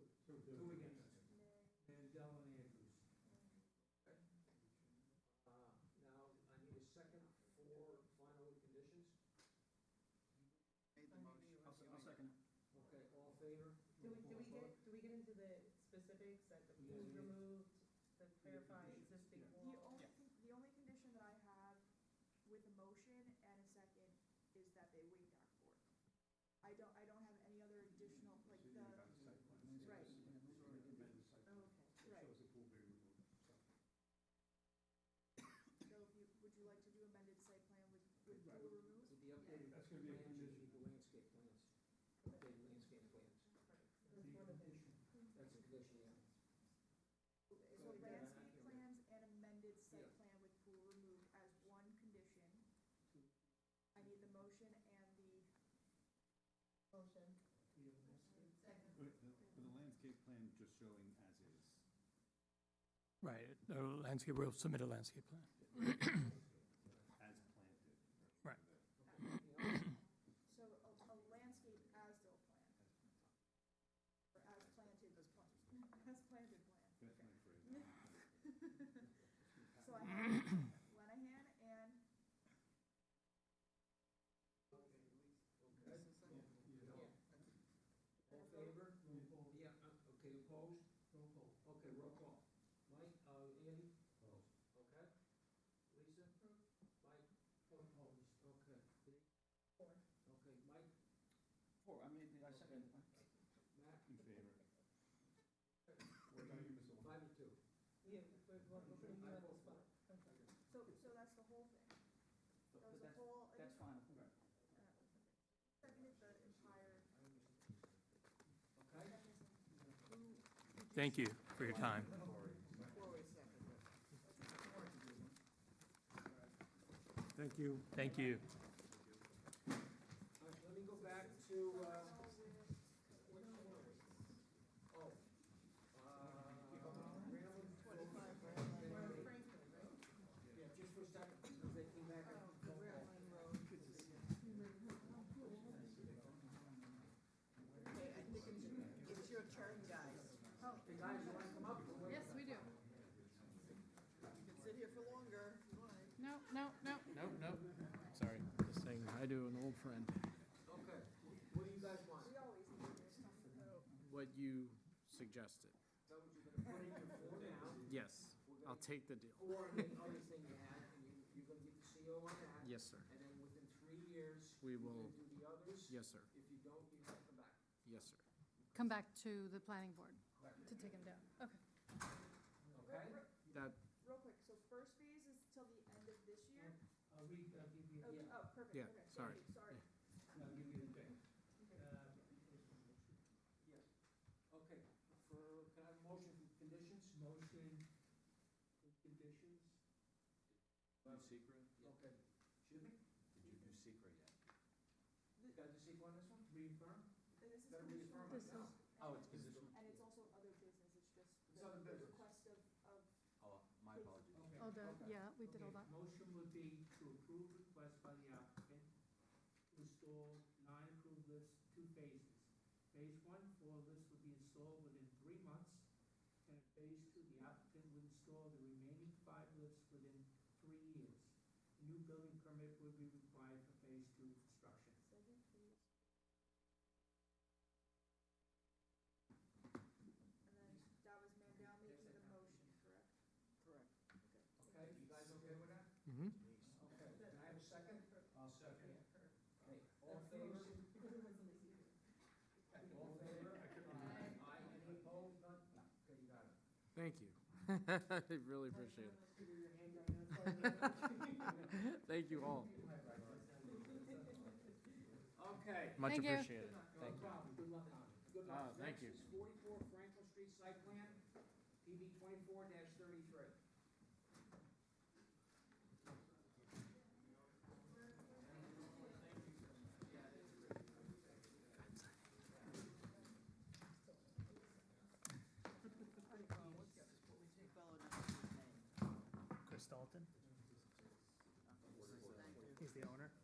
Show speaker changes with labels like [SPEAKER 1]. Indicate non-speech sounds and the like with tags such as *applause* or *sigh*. [SPEAKER 1] two against, and Dell and Andrews. Okay. Uh, now, I need a second for final conditions.
[SPEAKER 2] Made the motion.
[SPEAKER 3] I'll, I'll second it.
[SPEAKER 1] Okay, all in favor?
[SPEAKER 4] Do we, do we get, do we get into the specifics that the pool
[SPEAKER 1] Yeah.
[SPEAKER 4] removed, the clarify
[SPEAKER 1] Yeah.
[SPEAKER 4] existing
[SPEAKER 1] Yeah.
[SPEAKER 4] wall?
[SPEAKER 5] The only, con-
[SPEAKER 3] Yeah.
[SPEAKER 5] the only condition that I have with a motion and a second is that they waive dock board. I don't, I don't have any other additional, like the, Right.
[SPEAKER 4] Okay,
[SPEAKER 5] right,
[SPEAKER 1] the pool being removed.
[SPEAKER 5] so if you, would you like to do amended site plan with, with
[SPEAKER 1] Right.
[SPEAKER 5] pool removed?
[SPEAKER 1] With the updated
[SPEAKER 3] That's
[SPEAKER 1] plans,
[SPEAKER 3] gonna be a
[SPEAKER 1] you
[SPEAKER 3] condition.
[SPEAKER 1] need the landscape plans, updated landscape plans.
[SPEAKER 4] That's one of the,
[SPEAKER 1] That's a condition, yeah.
[SPEAKER 5] So
[SPEAKER 1] Yeah.
[SPEAKER 5] landscape
[SPEAKER 1] Yeah.
[SPEAKER 5] plans and amended
[SPEAKER 1] Yeah.
[SPEAKER 5] site plan with pool removed as one condition. I need the motion and the,
[SPEAKER 4] motion.
[SPEAKER 6] With the- with the landscape plan just showing as is.
[SPEAKER 7] Right, the landscape, we'll submit a landscape plan.
[SPEAKER 6] As planted.
[SPEAKER 7] Right.
[SPEAKER 1] uh,
[SPEAKER 5] so a, a landscape as they plan. Or as planted, *laughs* as planted, as planted plan.
[SPEAKER 6] That's my phrase.
[SPEAKER 5] *laughs* So I have Lenahan and
[SPEAKER 1] Okay, yeah. All in favor? Yeah, uh, okay, opposed? Okay, roll call. Mike, uh, Andy? Okay. Lisa? Mike? Opposed. Okay.
[SPEAKER 4] Four.
[SPEAKER 1] Okay, Mike,
[SPEAKER 3] Four, I made, the- I second
[SPEAKER 1] Matt,
[SPEAKER 6] In favor.
[SPEAKER 1] five and two.
[SPEAKER 4] Yeah, we're, we're we're putting you on the spot. Okay.
[SPEAKER 5] So, so that's the whole thing?
[SPEAKER 3] But-
[SPEAKER 5] That was
[SPEAKER 3] but
[SPEAKER 5] the
[SPEAKER 3] that's,
[SPEAKER 5] whole?
[SPEAKER 3] that's fine.
[SPEAKER 5] uh, Seconded the entire,
[SPEAKER 1] Okay?
[SPEAKER 7] Thank you for your time.
[SPEAKER 8] Thank you.
[SPEAKER 7] Thank you.
[SPEAKER 1] All right, let me go back to, uh, what corners? Oh, uh, Graham,
[SPEAKER 4] We're
[SPEAKER 1] Graham,
[SPEAKER 4] Franklin, right? Oh,
[SPEAKER 1] yeah, just for a second, because they came back. and-
[SPEAKER 4] Okay, I think it's, it's your turn, guys.
[SPEAKER 1] The guys want to come up. or what?
[SPEAKER 9] Yes, we do.
[SPEAKER 4] You can sit here for longer if you want.
[SPEAKER 9] No, no, no.
[SPEAKER 3] Nope, nope, sorry, just saying hi to an old friend.
[SPEAKER 1] Okay, what do you guys want?
[SPEAKER 5] we always do this.
[SPEAKER 3] What you suggested,
[SPEAKER 1] Put in your four now.
[SPEAKER 3] yes,
[SPEAKER 1] We're gonna
[SPEAKER 3] I'll take the deal.
[SPEAKER 1] Four and the other thing you had, and you, you're gonna get the CO on that.
[SPEAKER 3] Yes, sir,
[SPEAKER 1] And then within three years.
[SPEAKER 3] We
[SPEAKER 1] you're
[SPEAKER 3] will-
[SPEAKER 1] gonna Do the others.
[SPEAKER 3] yes, sir,
[SPEAKER 1] If you don't, you have to come back.
[SPEAKER 3] yes, sir.
[SPEAKER 9] Come back to the planning board to take him down. Okay.
[SPEAKER 1] Okay?
[SPEAKER 3] That,
[SPEAKER 5] Real quick, so first phase is till the end of this year?
[SPEAKER 1] I'll read, I'll give you.
[SPEAKER 5] Oh,
[SPEAKER 1] Yeah,
[SPEAKER 5] oh, perfect,
[SPEAKER 3] Yeah,
[SPEAKER 5] okay, thank
[SPEAKER 3] sorry.
[SPEAKER 5] you, sorry.
[SPEAKER 1] I'll give you the date.
[SPEAKER 5] Okay.
[SPEAKER 1] Uh, Yes, okay, for, can I have a motion for conditions? Motion for conditions? Okay,
[SPEAKER 3] secret?
[SPEAKER 1] should we,
[SPEAKER 3] Did you do secret yet?
[SPEAKER 1] got the sequel on this one? Reaffirm?
[SPEAKER 5] And this is
[SPEAKER 1] Better reaffirm
[SPEAKER 5] conditional,
[SPEAKER 1] it
[SPEAKER 9] This
[SPEAKER 1] now.
[SPEAKER 9] is-
[SPEAKER 3] Oh, it's conditional.
[SPEAKER 5] and it's also other business, it's just
[SPEAKER 1] It's
[SPEAKER 5] the
[SPEAKER 1] other business.
[SPEAKER 5] request of, of,
[SPEAKER 3] Oh, my
[SPEAKER 5] apologies.
[SPEAKER 1] Okay,
[SPEAKER 9] All the,
[SPEAKER 1] okay.
[SPEAKER 9] yeah, we did all that.
[SPEAKER 10] Motion would be to approve request by the applicant to install nine approved lists, two phases. Phase one, four lists would be installed within three months, and in phase two, the applicant would install the remaining five lists within three years. A New building permit would be required for phase two construction.
[SPEAKER 5] second phase. And then that was Mandel making the motion, correct?
[SPEAKER 4] Correct.
[SPEAKER 1] Okay, you guys okay with that?
[SPEAKER 7] Mm-hmm.
[SPEAKER 1] Okay, can I have a second? I'll second. Okay, all in favor? All in favor? Aye. any opposed, none? No. Okay, you got it.
[SPEAKER 3] Thank you. *laughs* I really appreciate it. Thank you all.
[SPEAKER 1] *laughs* Okay.
[SPEAKER 3] Much
[SPEAKER 9] Thank you.
[SPEAKER 3] appreciated.
[SPEAKER 1] No problem, good luck on it. Good luck.
[SPEAKER 3] Ah, thank you.
[SPEAKER 1] Next is forty-four Franklin Street site plan, PB twenty-four thirty-three.
[SPEAKER 8] Chris Dalton? He's the owner?